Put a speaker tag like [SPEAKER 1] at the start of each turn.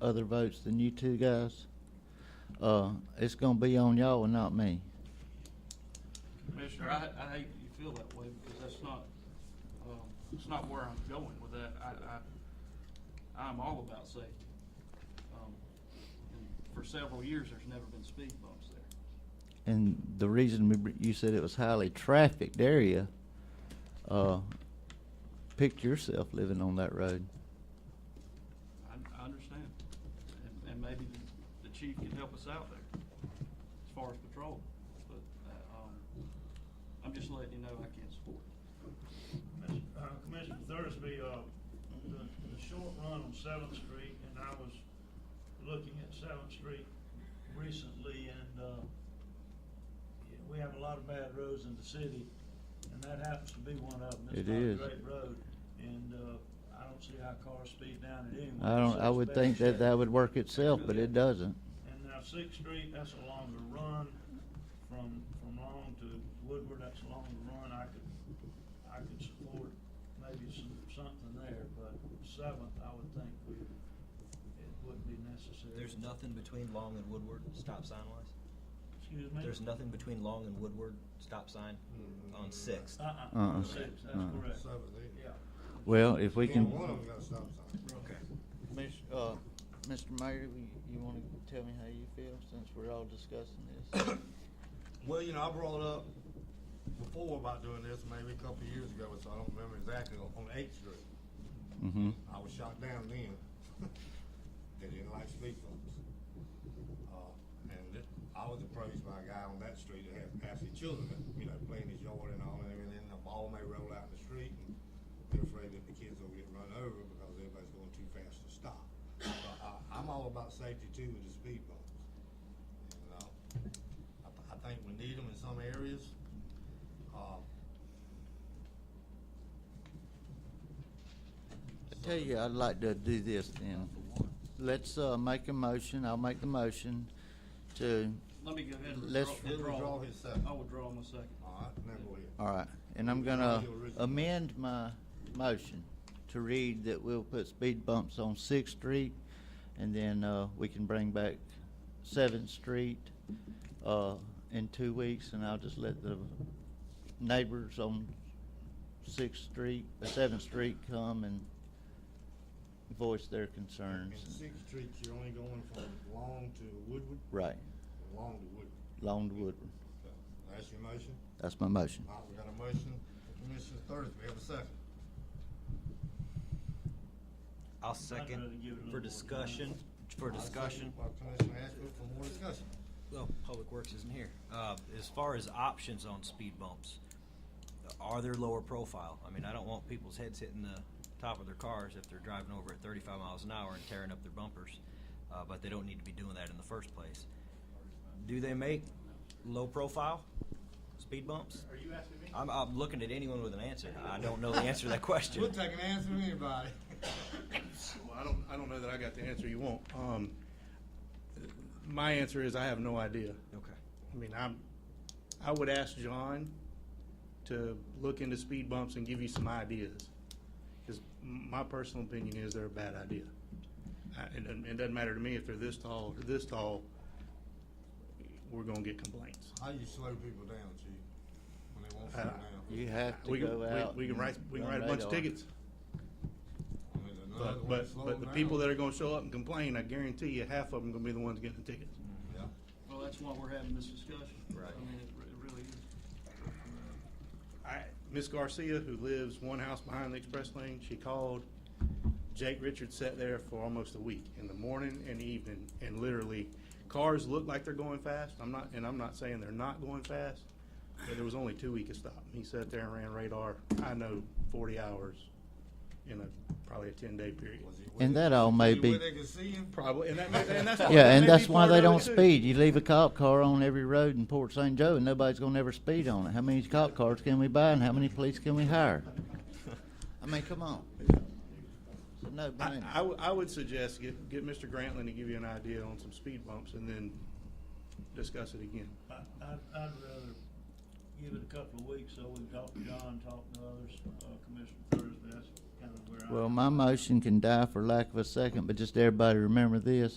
[SPEAKER 1] other votes than you two guys, uh, it's gonna be on y'all and not me.
[SPEAKER 2] Commissioner, I, I hate that you feel that way because that's not, um, it's not where I'm going with that. I, I, I'm all about safety. Um, and For several years, there's never been speed bumps there.
[SPEAKER 1] And the reason we br- you said it was highly trafficked area, uh, picture yourself living on that road.
[SPEAKER 2] I, I understand. And, and maybe the- the chief can help us out there as far as patrol. But, uh, um, I'm just letting you know I can't support it.
[SPEAKER 3] Uh, Commissioner Thursby, uh, the, the short run on Seventh Street, and I was looking at Seventh Street recently, and, uh, yeah, we have a lot of bad roads in the city, and that happens to be one of them.
[SPEAKER 1] It is.
[SPEAKER 3] It's not a great road, and, uh, I don't see how cars speed down it anyway.
[SPEAKER 1] I don't,
[SPEAKER 3] It's
[SPEAKER 1] I
[SPEAKER 3] such
[SPEAKER 1] would
[SPEAKER 3] bad
[SPEAKER 1] think that
[SPEAKER 3] shape.
[SPEAKER 1] that would work itself, but it doesn't.
[SPEAKER 3] And now Sixth Street, that's a longer run from, from Long to Woodward, that's a longer run. I could, I could support maybe some, something there, but Seventh, I would think we, it wouldn't be necessary.
[SPEAKER 4] There's nothing between Long and Woodward, stop sign wise?
[SPEAKER 3] Excuse me?
[SPEAKER 4] There's nothing between Long and Woodward, stop sign on Sixth?
[SPEAKER 3] Uh-uh,
[SPEAKER 1] Uh-uh.
[SPEAKER 3] on Sixth, that's
[SPEAKER 1] Uh-uh.
[SPEAKER 3] correct.
[SPEAKER 5] Seven, eight.
[SPEAKER 3] Yeah.
[SPEAKER 1] Well, if we can.
[SPEAKER 5] One of them got a stop sign.
[SPEAKER 4] Okay.
[SPEAKER 1] Miss- uh, Mr. Mayor, you- you want to tell me how you feel since we're all discussing this?
[SPEAKER 5] Well, you know, I brought up before about doing this, maybe a couple of years ago, so I don't remember exactly, on Eighth Street.
[SPEAKER 1] Mm-hmm.
[SPEAKER 5] I was shot down then. They didn't like speed bumps. Uh, And it- I was approached by a guy on that street that had actually children, that, you know, playing in his yard and all, and then the ball may roll out in the street, and they're afraid that the kids will get run over because everybody's going too fast to stop. So I- I'm all about safety too with the speed bumps. And, uh, I th- I think we need them in some areas. Uh,
[SPEAKER 1] I tell you, I'd like to do this then. Let's, uh, make a motion, I'll make the motion to,
[SPEAKER 2] Let me go ahead and
[SPEAKER 1] Let's-
[SPEAKER 2] withdraw-
[SPEAKER 5] He'll withdraw
[SPEAKER 2] withdraw.
[SPEAKER 5] his second.
[SPEAKER 2] I
[SPEAKER 5] All
[SPEAKER 2] withdraw my second.
[SPEAKER 5] right, now go ahead.
[SPEAKER 1] all right, and I'm gonna amend my motion to read that we'll put speed bumps on Sixth Street, and then, uh, we can bring back Seventh Street, uh, in two weeks, and I'll just let the neighbors on Sixth Street, uh, Seventh Street come and voice their
[SPEAKER 5] And
[SPEAKER 1] concerns.
[SPEAKER 5] Sixth Street, you're only going from Long to Woodward,
[SPEAKER 1] Right,
[SPEAKER 5] Long to Woodward.
[SPEAKER 1] Long to Woodward.
[SPEAKER 5] So, That's your motion?
[SPEAKER 1] That's my motion.
[SPEAKER 5] All right, we got a motion from Commissioner Thursby, have a second.
[SPEAKER 4] I'll
[SPEAKER 3] I'd rather give it a
[SPEAKER 4] second
[SPEAKER 3] little
[SPEAKER 4] for
[SPEAKER 3] more
[SPEAKER 4] discussion, for discussion.
[SPEAKER 5] By Commissioner Ashbrook for more discussion.
[SPEAKER 4] Well, Public Works isn't here. Uh, as far as options on speed bumps, are there lower profile? I mean, I don't want people's heads hitting the top of their cars if they're driving over at thirty-five miles an hour and tearing up their bumpers, uh, but they don't need to be doing that in the first place. Do they make low profile speed bumps?
[SPEAKER 3] Are you asking me?
[SPEAKER 4] I'm, I'm looking at anyone with an answer. I don't know the answer to that question.
[SPEAKER 5] We'll take an answer from anybody.
[SPEAKER 6] Well, I don't, I don't know that I got the answer you want. Um, my answer is I have no idea.
[SPEAKER 4] Okay.
[SPEAKER 6] I mean, I'm, I would ask John to look into speed bumps and give you some ideas. Because my personal opinion is they're a bad idea. I- It doesn't, it doesn't matter to me if they're this tall or this tall, we're gonna get complaints.
[SPEAKER 5] How you slow people down, Chief, when they won't slow
[SPEAKER 6] Uh,
[SPEAKER 5] down?
[SPEAKER 1] You have to
[SPEAKER 6] We can,
[SPEAKER 1] go out.
[SPEAKER 6] we- we can
[SPEAKER 1] and
[SPEAKER 6] write, we can
[SPEAKER 1] run
[SPEAKER 6] write a bunch of
[SPEAKER 1] radar.
[SPEAKER 6] tickets.
[SPEAKER 5] I mean, another
[SPEAKER 6] But,
[SPEAKER 5] one
[SPEAKER 6] but,
[SPEAKER 5] slow
[SPEAKER 6] but the
[SPEAKER 5] down.
[SPEAKER 6] people that are gonna show up and complain, I guarantee you, half of them gonna be the ones getting the tickets.
[SPEAKER 5] Yeah.
[SPEAKER 2] Well, that's why we're having this discussion.
[SPEAKER 4] Right.
[SPEAKER 2] I mean, it re- it really is.
[SPEAKER 6] I, Miss Garcia, who lives one house behind the express lane, she called. Jake Richards sat there for almost a week in the morning and evening, and literally, cars look like they're going fast. I'm not, and I'm not saying they're not going fast, but there was only two we could stop. He sat there and ran radar. I know forty hours in a probably a ten day period.
[SPEAKER 5] Was he
[SPEAKER 1] And
[SPEAKER 5] with
[SPEAKER 1] that
[SPEAKER 5] it?
[SPEAKER 1] all may
[SPEAKER 5] Was he
[SPEAKER 1] be-
[SPEAKER 5] where they could see him?
[SPEAKER 6] Probably, and that, may- and that's
[SPEAKER 1] Yeah,
[SPEAKER 6] that may
[SPEAKER 1] and that's
[SPEAKER 6] be
[SPEAKER 1] why
[SPEAKER 6] part
[SPEAKER 1] they
[SPEAKER 6] of it,
[SPEAKER 1] don't
[SPEAKER 6] too.
[SPEAKER 1] speed. You leave a cop car on every road in Port St. Joe, and nobody's gonna ever speed on it. How many cop cars can we buy, and how many police can we hire? I mean, come on. No,
[SPEAKER 6] I, I would- I would suggest get, get Mr. Grantland to give you an idea on some speed bumps and then discuss it again.
[SPEAKER 3] I, I'd, I'd rather give it a couple of weeks, so we can talk to John, talk to others, uh, Commissioner Thursby, that's kind of where I.
[SPEAKER 1] Well, my motion can die for lack of a second, but just everybody remember this.